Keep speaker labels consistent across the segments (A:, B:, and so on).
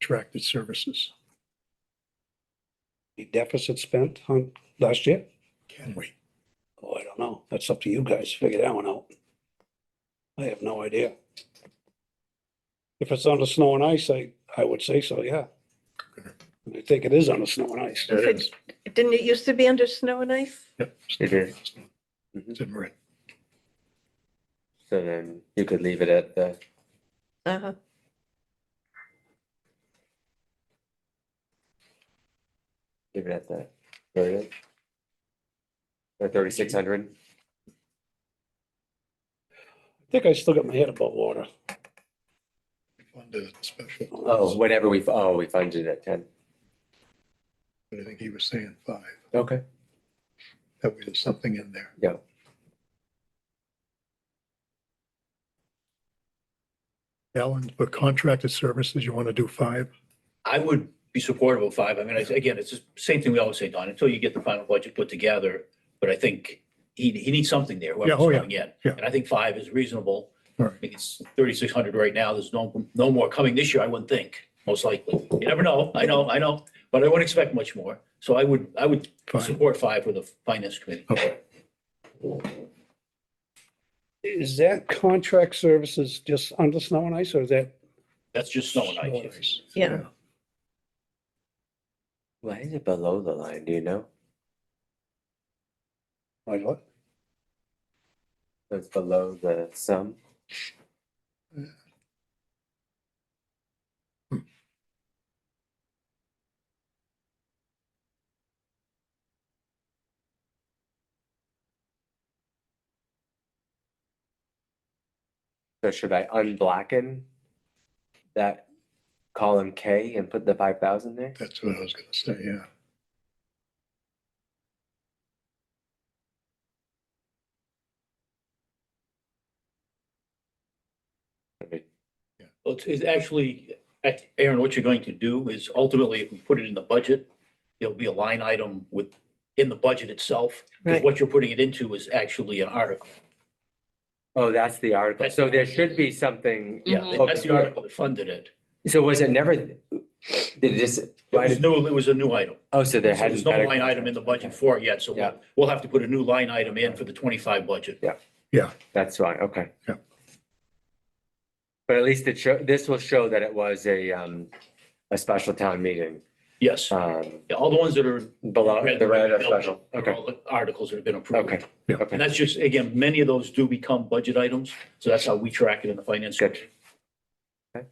A: contracted services?
B: The deficit spent on last year?
A: Can we?
B: Oh, I don't know. That's up to you guys. Figure that one out. I have no idea. If it's under snow and ice, I, I would say so, yeah. I think it is under snow and ice.
A: It is.
C: Didn't it used to be under snow and ice?
A: Yep.
D: It is.
A: It's in red.
D: So then you could leave it at the,
C: Uh-huh.
D: leave it at the thirty. Or thirty-six hundred,
B: I think I still got my head above water.
A: Funded special.
D: oh, whatever we, oh, we funded it at ten.
A: But I think he was saying five.
D: Okay.
A: That way there's something in there.
D: Yeah.
A: Alan, for contracted services, you want to do five?
E: I would be supportive of five. I mean, I- again, it's the same thing we always say, Don, until you get the final budget put together. But I think he, he needs something there,
A: Yeah, oh,
E: whoever's
A: yeah,
E: coming in.
A: yeah.
E: And I think five is reasonable.
A: All right.
E: I think it's thirty-six hundred right now. There's no, no more coming this year, I wouldn't think, most likely. You never know. I know, I know, but I wouldn't expect much more. So I would, I would
A: Five.
E: support five with the finance committee.
A: Okay.
B: Is that contract services just under snow and ice or is that,
E: That's just snow and ice.
C: Yeah.
D: Why is it below the line, do you know?
B: like what?
D: It's below the sum, so should I unblacken that column K and put the five thousand there?
A: That's what I was gonna say, yeah.
D: Okay.
E: Well, it's, it's actually, ac- Aaron, what you're going to do is ultimately, if we put it in the budget, there'll be a line item with, in the budget itself. Because
C: Right.
E: what you're putting it into is actually an article.
D: Oh, that's the article,
E: That's-
D: so there should be something,
E: Yeah, that's the
D: Okay.
E: article that funded it.
D: so was it never, did this,
E: It was new, it was a new item.
D: oh, so there
E: So
D: hadn't.
E: there's no
D: been a-
E: line item in the budget for it yet, so
D: Yeah.
E: we'll, we'll have to put a new line item in for the twenty-five budget.
D: That's fine, okay.
A: Yeah.
D: But at least it show, this will show that it was a, um, a special town meeting,
E: Yes,
D: um,
E: Yeah, all the ones that are.
D: below the red are special,
E: Are
D: okay,
E: all the articles that have been approved.
D: okay.
A: Yeah.
E: And
D: Okay,
E: that's just, again, many of those do become budget items, so that's how we track it in the finance.
D: Good.
E: committee.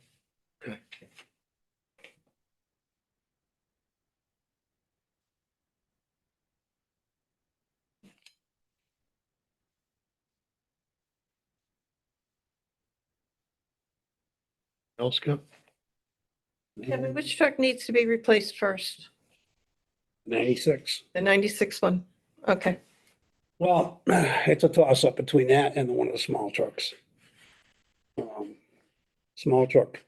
A: Else, Kev?
C: Kevin, which truck needs to be replaced first?
B: Ninety-six.
C: The ninety-six one? Okay,
B: Well, it's a toss up between that and one of the small trucks. Um, Small truck,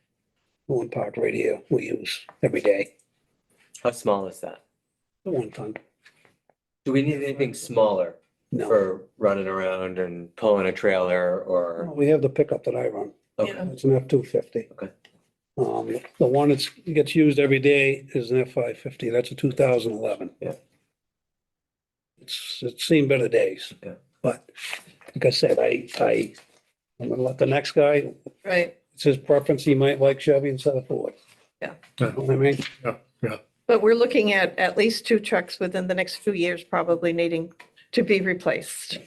B: the one parked right here, we use every day,
D: how small is that?
B: the one ton.
D: Do we need anything smaller
B: No,
D: for running around and pulling a trailer
B: No,
D: or?
B: we have the pickup that I run.
D: Okay,
C: Yeah.
B: It's an F two fifty.
D: Okay.
B: Um, the one that's, gets used every day is an F five fifty, that's a two thousand eleven.
D: Yeah.
B: It's, it's seen better days.
D: Yeah.
B: But, like I said, I, I, I'm gonna let the next guy,
C: right.
B: it's his preference, he might like Chevy instead of Ford.
C: Yeah.
B: You know what I mean?
C: But we're looking at at least two trucks within the next few years probably needing to be replaced.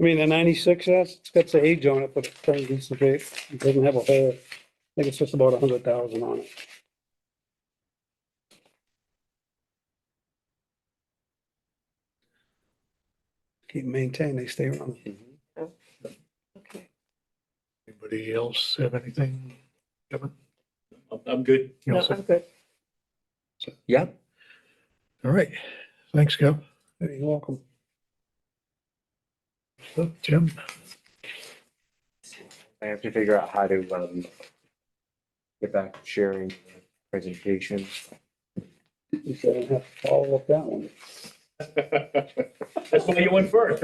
B: I mean, the ninety-six, that's, it's got the age on it, but it's pretty decent shape. It doesn't have a hole. I think it's just about a hundred thousand on it. Keep maintained, they stay around.
D: Mhm.
C: Okay.
A: Anybody else have anything? Kevin?
E: I'm- I'm good.
A: You
C: No,
A: also-
C: I'm good.
D: Yeah,
A: All right, thanks, Kev.
B: You're welcome.
A: So, Jim?
D: I have to figure out how to, um, get back to sharing the presentation.
B: You shouldn't have to follow up that one.
E: That's why you went first, right?